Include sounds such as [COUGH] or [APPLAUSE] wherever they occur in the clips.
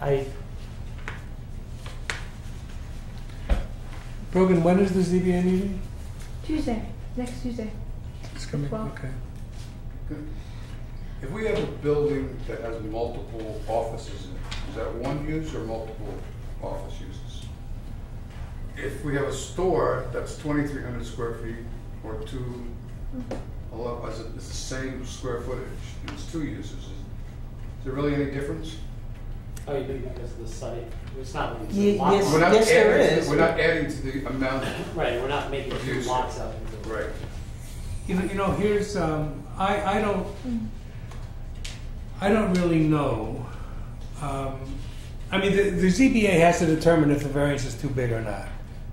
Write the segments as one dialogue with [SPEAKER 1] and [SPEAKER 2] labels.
[SPEAKER 1] I,
[SPEAKER 2] Brogan, when is the ZBA meeting?
[SPEAKER 3] Tuesday, next Tuesday.
[SPEAKER 2] It's coming,
[SPEAKER 3] Well-
[SPEAKER 2] okay.
[SPEAKER 4] If we have a building that has multiple offices in it, is that one use or multiple office uses? If we have a store that's twenty-three hundred square feet or two,
[SPEAKER 5] Mm-hmm.
[SPEAKER 4] eleven, it's the same square footage, and it's two uses, is there really any difference?
[SPEAKER 1] oh, you mean because of the site, it's not, really- it's
[SPEAKER 5] Ye-
[SPEAKER 1] a lot.
[SPEAKER 5] yes.
[SPEAKER 4] We're not
[SPEAKER 5] Yes, there
[SPEAKER 4] adding-
[SPEAKER 5] is.
[SPEAKER 4] We're not adding to the amount,
[SPEAKER 1] Right, we're not making two
[SPEAKER 4] Use.
[SPEAKER 1] lots out of it.
[SPEAKER 4] right,
[SPEAKER 2] You know, you know, here's, um, I, I don't, I don't really know. Um, I mean, the, the ZBA has to determine if the variance is too big or not.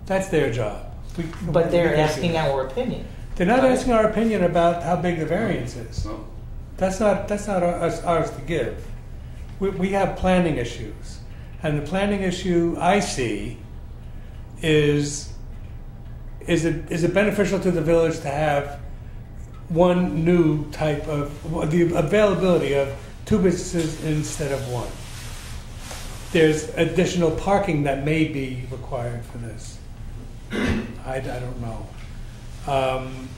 [SPEAKER 2] That's their job. We-
[SPEAKER 5] But
[SPEAKER 2] we
[SPEAKER 5] they're
[SPEAKER 2] can
[SPEAKER 5] asking
[SPEAKER 2] see-
[SPEAKER 5] our opinion.
[SPEAKER 2] They're not asking our opinion about how big the variance is.
[SPEAKER 4] so.
[SPEAKER 2] That's not, that's not our- us- ours to give. We, we have planning issues. And the planning issue I see is, is it, is it beneficial to the village to have one new type of, the availability of two businesses instead of one? There's additional parking that may be required for this. I, I don't know. Um,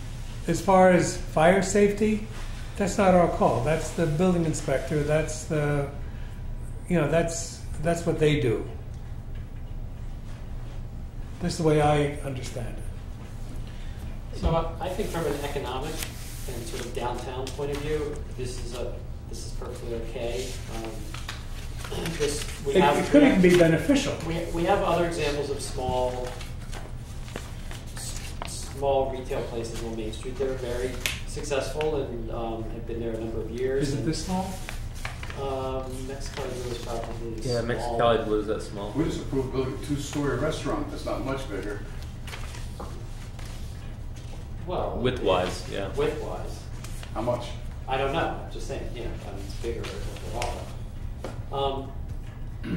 [SPEAKER 2] as far as fire safety, that's not our call. That's the building inspector. That's the, you know, that's that's what they do. That's the way I understand it.
[SPEAKER 1] So I- I think from an economic and sort of downtown point of view, this is a, this is perfectly okay. Um, [CLEARS THROAT] This, we
[SPEAKER 2] It,
[SPEAKER 1] have.
[SPEAKER 2] it could even be beneficial.
[SPEAKER 1] We, we have other examples of small, s- small retail places on Main Street that are very successful and um, have been there a number of years.
[SPEAKER 2] Is it
[SPEAKER 1] and,
[SPEAKER 2] this small?
[SPEAKER 1] Um, Mexicali Blue is probably
[SPEAKER 6] Yeah,
[SPEAKER 1] small.
[SPEAKER 6] Mexicali Blues that small.
[SPEAKER 4] We just approved building a two-story restaurant that's not much bigger.
[SPEAKER 1] Well,
[SPEAKER 6] Width wise, yeah.
[SPEAKER 1] width wise,
[SPEAKER 4] How much?
[SPEAKER 1] I don't know. I'm just saying, you know, I mean, it's bigger overall. Um,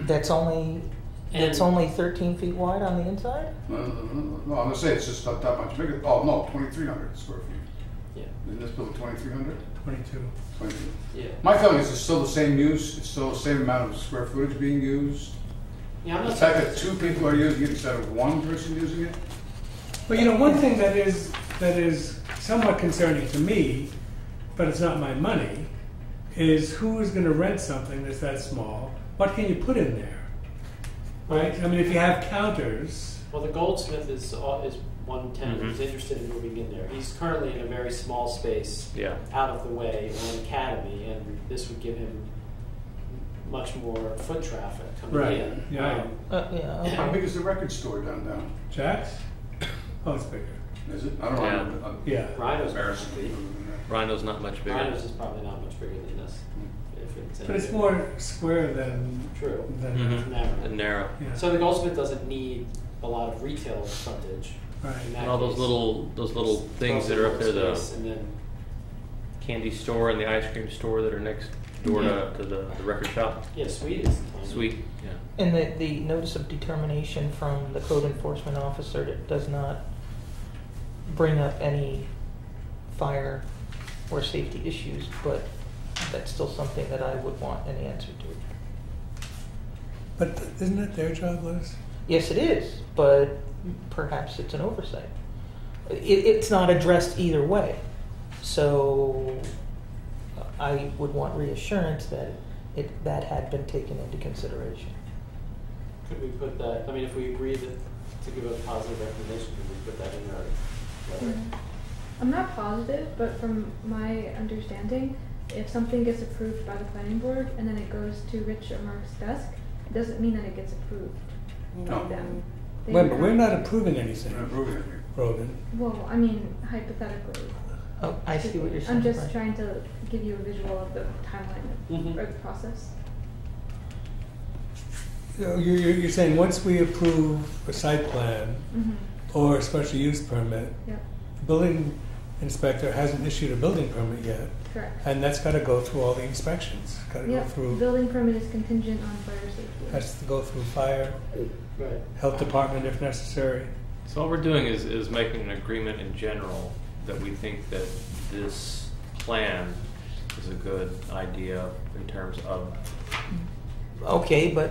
[SPEAKER 5] That's only,
[SPEAKER 1] and
[SPEAKER 5] it's only 13 feet wide on the inside?
[SPEAKER 4] No, no, no, no, no, I'm gonna say it's just not that much bigger, oh, no, twenty-three hundred square feet.
[SPEAKER 1] yeah,
[SPEAKER 4] Isn't this building twenty-three hundred?
[SPEAKER 2] Twenty-two.
[SPEAKER 1] yeah.
[SPEAKER 4] My feeling is it's still the same use, it's still the same amount of square footage being used.
[SPEAKER 1] yeah, I'm
[SPEAKER 4] The
[SPEAKER 1] not
[SPEAKER 4] fact that two people are using it instead of one person using it,
[SPEAKER 2] But you know, one thing that is that is somewhat concerning to me, but it's not my money, is who is going to rent something that's that small? What can you put in there? Right. I mean, if you have counters.
[SPEAKER 1] Well, the Goldsmith is all, is one tenant
[SPEAKER 6] Mhm.
[SPEAKER 1] who's interested in moving in there. He's currently in a very small space,
[SPEAKER 6] Yeah.
[SPEAKER 1] out of the way on Academy, and this would give him much more foot traffic coming
[SPEAKER 2] Right,
[SPEAKER 1] in.
[SPEAKER 2] yeah.
[SPEAKER 1] Um,
[SPEAKER 5] Uh, yeah,
[SPEAKER 4] how
[SPEAKER 5] okay.
[SPEAKER 4] big is the record store downtown?
[SPEAKER 2] Jacks? Oh, it's bigger.
[SPEAKER 4] Is it? I don't
[SPEAKER 6] Yeah.
[SPEAKER 4] know. Uh, I'm-
[SPEAKER 2] Yeah.
[SPEAKER 1] Rhino's
[SPEAKER 4] Embarrassing.
[SPEAKER 6] Rhino's not much bigger.
[SPEAKER 1] Rhino's is probably not much bigger than this. If it's
[SPEAKER 2] But it's
[SPEAKER 1] anything.
[SPEAKER 2] more square than.
[SPEAKER 1] true.
[SPEAKER 2] than
[SPEAKER 4] Mm-hmm.
[SPEAKER 6] Mhm.
[SPEAKER 1] Narrow.
[SPEAKER 6] And narrow.
[SPEAKER 2] yeah.
[SPEAKER 1] So the Goldsmith doesn't need a lot of retail frontage. in
[SPEAKER 2] right.
[SPEAKER 1] that
[SPEAKER 6] And all those
[SPEAKER 1] case.
[SPEAKER 6] little those little
[SPEAKER 1] It's
[SPEAKER 6] things that are up there, the
[SPEAKER 1] space, and then
[SPEAKER 6] candy store and the ice cream store that are next door to, to the, the record shop.
[SPEAKER 1] yeah, sweet is tiny.
[SPEAKER 6] Sweet. Yeah.
[SPEAKER 5] And the, the notice of determination from the code enforcement officer that does not bring up any fire or safety issues, but that's still something that I would want an answer to.
[SPEAKER 2] But th- isn't it their job, Liz?
[SPEAKER 5] Yes, it is, but perhaps it's an oversight. It, it's not addressed either way. So I would want reassurance that it, that had been taken into consideration.
[SPEAKER 1] Could we put that? I mean, if we agree that to give a positive recommendation, could we put that in our letter?
[SPEAKER 5] Mm-hmm.
[SPEAKER 3] Mm-hmm. I'm not positive, but from my understanding, if something gets approved by the planning board and then it goes to Rich or Mark's desk, it doesn't mean that it gets approved by
[SPEAKER 4] No.
[SPEAKER 3] them. They
[SPEAKER 2] Remember,
[SPEAKER 3] would
[SPEAKER 2] we're
[SPEAKER 3] have-
[SPEAKER 2] not approving
[SPEAKER 4] They're not
[SPEAKER 2] anything,
[SPEAKER 4] approving it here.
[SPEAKER 2] Rogan.
[SPEAKER 3] Well, I mean, hypothetically.
[SPEAKER 5] Oh, I see what you're saying.
[SPEAKER 3] I'm just
[SPEAKER 5] right. Mm-hmm.
[SPEAKER 3] trying to give you a visual of the timeline
[SPEAKER 1] Mhm.
[SPEAKER 3] of, or the process.
[SPEAKER 2] So You're, you're you're saying once we approve a site plan
[SPEAKER 3] Mm-hmm.
[SPEAKER 2] or a special use permit,
[SPEAKER 3] Yep.
[SPEAKER 2] the building inspector hasn't issued a building permit yet,
[SPEAKER 3] Correct.
[SPEAKER 2] and that's got to go through all the inspections. Got to go
[SPEAKER 3] Yep.
[SPEAKER 2] through.
[SPEAKER 3] Building permit is contingent on fire safety.
[SPEAKER 2] Has to go through fire,
[SPEAKER 1] Right.
[SPEAKER 2] health department if necessary.
[SPEAKER 6] So all we're doing is, is making an agreement in general that we think that this plan is a good idea in terms of
[SPEAKER 5] Okay, but